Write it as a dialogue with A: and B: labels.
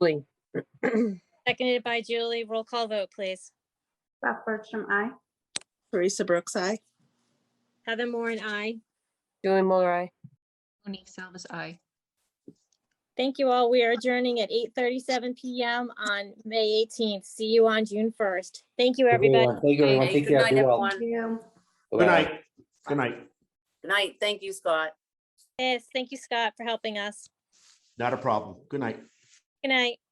A: Buckley,
B: Seconded by Julie. Roll call vote, please.
C: Beth Bergstrom, aye.
D: Teresa Brooks, aye.
B: Heather Moore and I.
A: Julie Miller, I.
E: Monique Salvas, aye.
B: Thank you all. We are adjourning at 8:37 PM on May 18th. See you on June 1st. Thank you, everybody.
F: Thank you, everyone.
G: Okay,
F: Take
G: good
F: care.
G: night,
F: Be well.
G: everyone.
C: Thank you.
F: Bye-bye.
H: Good night. Good night.
G: Good night. Thank you, Scott.
B: Yes, thank you, Scott, for helping us.
H: Not a problem. Good night.
B: Good night.